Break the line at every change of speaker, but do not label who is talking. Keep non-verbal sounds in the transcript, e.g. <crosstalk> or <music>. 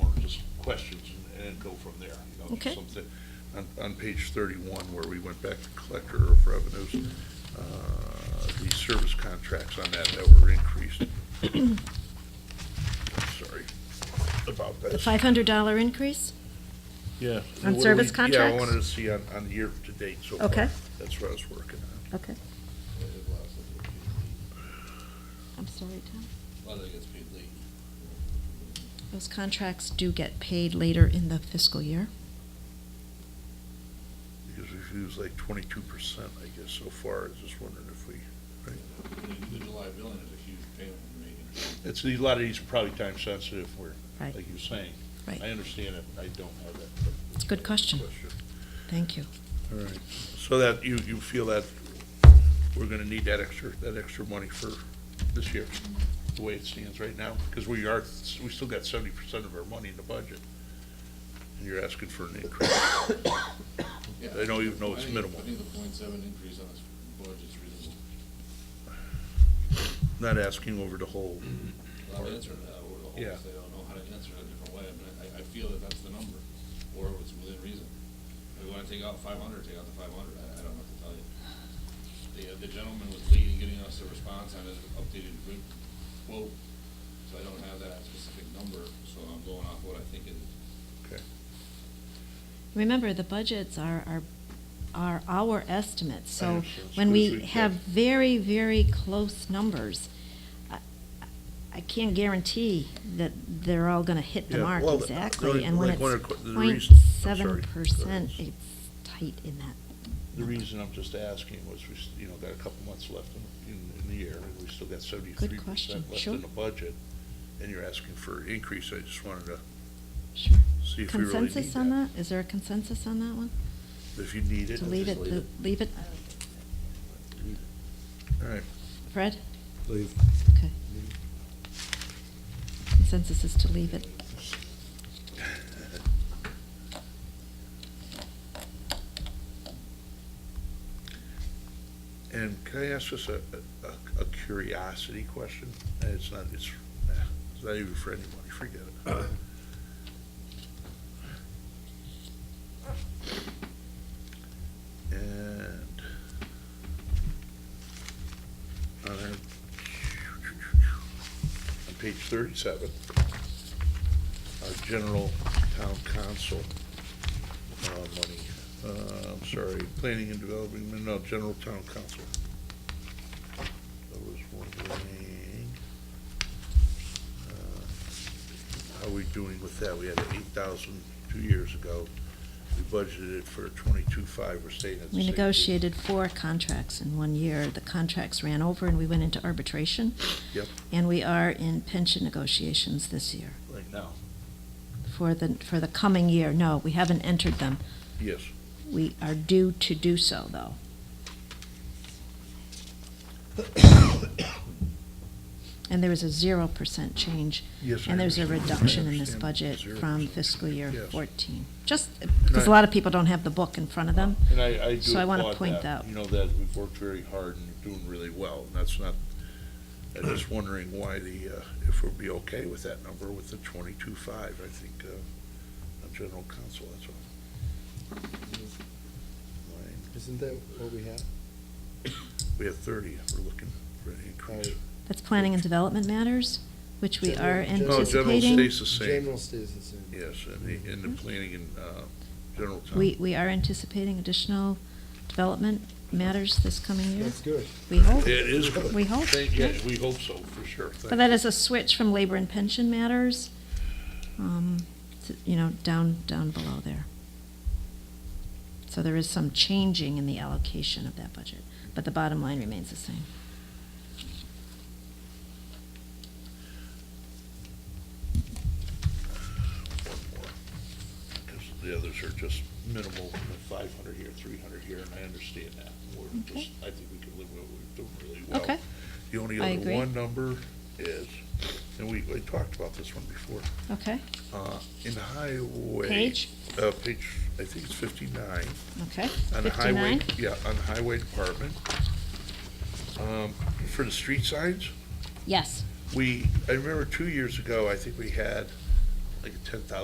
questions and- and go from there. you know,
Okay.
something- On, on page thirty-one, where we went back to collector of revenues, uh, the service contracts on that that were increased. <coughs> Sorry about
The
that.
five hundred dollar increase?
Yeah. What
On
do
service
we- Yeah, I
contracts?
wanted to see on, on the year to date so far.
Okay. Uh,
That's what I was working on.
Okay. I'm sorry, Tom.
Well, they get paid late.
Those contracts do get paid later in the fiscal year.
Because we've used like twenty-two percent, I guess, so far. I was just wondering if we, right?
The July billing is a huge payment we're making.
It's, a lot of these are probably time sensitive, where,
Right.
like you're saying.
Right.
I understand it, I don't have that.
It's a good question. Thank you.
All right, so that, you, you feel that we're gonna need that extra, that extra money for this year, the way it stands right now? Because we are, we still got seventy percent of our money in the budget, and you're asking for an <coughs> increase. I don't even know it's
I think-
minimal.
I think the point seven increase on this budget is reasonable.
Not asking over the whole, mm-hmm.
Well, I've answered that, or the whole,
Yeah.
they don't know how to answer it a different way, but I, I feel that that's the number, or it was within reason. If we wanna take out five hundred, take out the five hundred, I, I don't know what to tell you. The, uh, the gentleman was leading, getting us a response on his updated grid quote, so I don't have that specific number, so I'm going off what I think it is.
okay.
Remember, the budgets are, are, are our estimates,
I
so
understand. As
when
good as
we
we
have
get.
very, very close numbers, I- I can't guarantee that they're all gonna hit the
Yeah,
mark
well, the- the only-
exactly, and when
like, one of
it's
the que- the
point
reason- I'm sorry. Go
seven
ahead.
percent, it's tight in that.
The reason I'm just asking was we, s- you know, got a couple months left in, in, in the year, and we still got seventy-three
question,
percent left
sure.
in the budget. And you're asking for an increase, I just wanted to
Sure.
see if we really need that.
Consensus on that? Is there a consensus on that one?
If you need it.
To leave it, the- leave it?
All right,
Fred?
Leave.
Okay. Consensus is to leave it.
and can I ask just a, a- a curiosity question? And It's not, it's, eh, it's not even for anybody, forget it. And on our- on page thirty-seven, our general town council uh, money, uh, I'm sorry, planning and development, no, general town council. I was wondering, uh, how we doing with that? We had eight thousand two years ago. We budgeted it for twenty-two five, we're staying at the
We
same.
negotiated four contracts in one year. The contracts ran over and we went into arbitration.
Yep.
And we are in pension negotiations this year
Right now.
for the, for the coming year. No, we haven't entered them.
Yes.
We are due to do so, though. <coughs> And there was a zero percent change.
Yes, I
And there's a
understand. I
reduction in this
understand.
budget
Zero
from
percent.
fiscal year
Yes.
fourteen. Just, because a lot of people don't have the book in front of them.
And I, I do
So I wanna
applaud
point
that.
that out.
You know, that we've worked very hard and you're doing really well, and that's not, I'm just wondering why the, uh, if we'll be okay with that number with the twenty-two five, I think, uh, on general counsel, that's all. Mine.
Isn't that what we have?
We have thirty, we're looking for an increase.
That's planning and development matters, which we are
General-
No, Oh, general
anticipating.
stays the same,
General stays the same.
yes, and the, and the planning and, uh, general counsel.
Mm-hmm. We, we are anticipating additional development matters this coming year.
That's good.
We hope.
It is good.
We hope,
Thank- yeah,
yeah.
we hope so, for sure.
But
Thank
that
you.
is a switch from labor and pension matters, um, to- you know, down, down below there. So there is some changing in the allocation of that budget, but the bottom line remains the same.
one more, because the others are just minimal, five hundred here, three hundred here, and I understand that. We're
Okay.
just, I think we could live with, we're doing really well.
Okay,
The only
I
other
agree.
one number is, and we, we talked about this one before,
okay,
uh, in the highway.
Page?
Uh, page, I think it's fifty-nine.
okay.
On the highway,
59?
yeah, on the highway department. Um, for the street signs,
Yes.
we, I remember two years ago, I think we had like a ten thousand